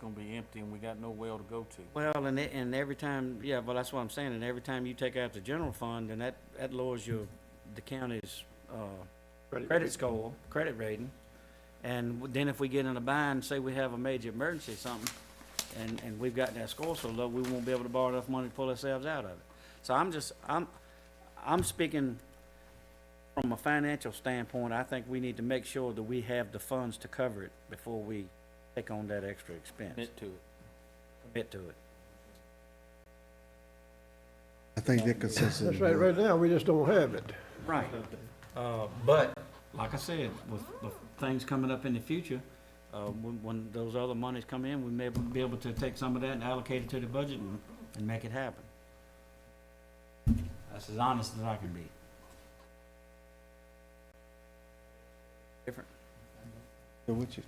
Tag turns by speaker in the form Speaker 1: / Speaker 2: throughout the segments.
Speaker 1: gonna be empty and we got no well to go to.
Speaker 2: Well, and it, and every time, yeah, well, that's what I'm saying, and every time you take out the general fund, then that, that lowers your, the county's, uh, credit score, credit rating. And w- then if we get in a bind, say we have a major emergency or something, and, and we've got that score so low, we won't be able to borrow enough money to pull ourselves out of it. So I'm just, I'm, I'm speaking from a financial standpoint, I think we need to make sure that we have the funds to cover it before we take on that extra expense,
Speaker 1: Commit to it.
Speaker 2: commit to it.
Speaker 3: I think that consensus.
Speaker 4: That's right, right now, we just don't have it.
Speaker 2: Right. Uh, but, like I said, with, with things coming up in the future, uh, when, when those other monies come in, we may be able to take some of that and allocate it to the budget and, and make it happen. That's as honest as I can be. Different.
Speaker 3: Yeah, what you-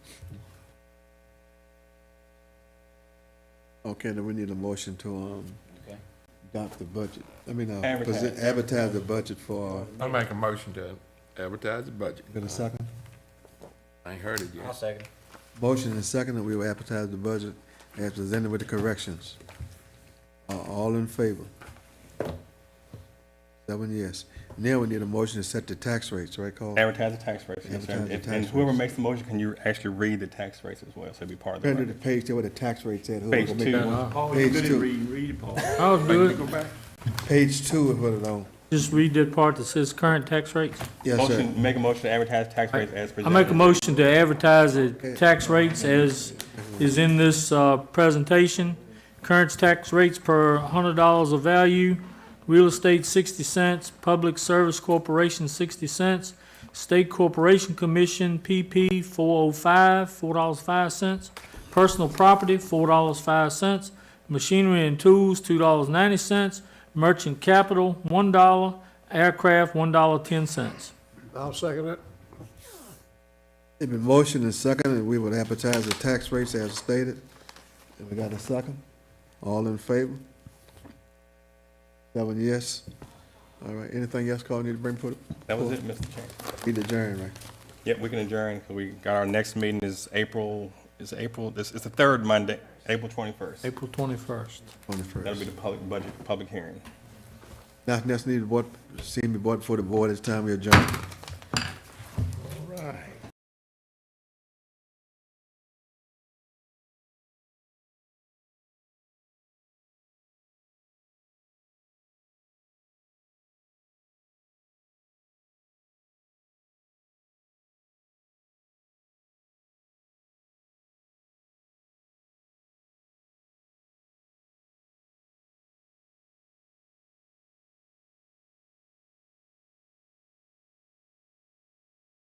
Speaker 3: Okay, then we need a motion to, um,
Speaker 2: Okay.
Speaker 3: adopt the budget. I mean, uh,
Speaker 2: Advertise.
Speaker 3: present- advertise the budget for,
Speaker 5: I'll make a motion to advertise the budget.
Speaker 3: got a second?
Speaker 5: I ain't heard it yet.
Speaker 2: second.
Speaker 3: Motion and second that we will advertise the budget as presented with the corrections. Uh, all in favor? Seven yes. Now we need a motion to set the tax rates, right, Carl?
Speaker 6: Advertise the tax rates. yes, sir.
Speaker 3: Advertise the
Speaker 6: If-
Speaker 3: tax
Speaker 6: And whoever
Speaker 3: rates.
Speaker 6: makes the motion, can you actually read the tax rates as well? So it'd be part of the
Speaker 3: Under the
Speaker 6: record.
Speaker 3: page there where the tax rates at. who-
Speaker 6: Page
Speaker 3: who make
Speaker 6: two.
Speaker 3: the one- Page two,
Speaker 7: I'll do it.
Speaker 3: page two is what it on.
Speaker 7: Just read the part that says current tax rates.
Speaker 3: Yes, sir.
Speaker 6: Motion, make a motion to advertise tax rates as
Speaker 7: I
Speaker 6: presented.
Speaker 7: make a motion to advertise the tax rates as is in this, uh, presentation. Current tax rates per hundred dollars of value, real estate sixty cents, public service corporation sixty cents, state corporation commission PP four oh five, four dollars five cents, personal property four dollars five cents, machinery and tools two dollars ninety cents, merchant capital one dollar, aircraft one dollar ten cents.
Speaker 4: I'll second it.
Speaker 3: It's been motioned and seconded, and we would advertise the tax rates as stated. And we got a second? All in favor? Seven yes. All right, anything else, Carl, need to bring for,
Speaker 6: That was it, Mr. Chairman.
Speaker 3: we adjourn, right?
Speaker 6: Yep, we can adjourn, 'cause we got our next meeting is April, is April, this, it's the third Monday, April twenty-first.
Speaker 7: April twenty-first.
Speaker 3: On the
Speaker 6: That'll be
Speaker 3: first.
Speaker 6: the public budget, public hearing.
Speaker 3: Nothing else needed, board, see me, board, for the board, it's time we adjourn.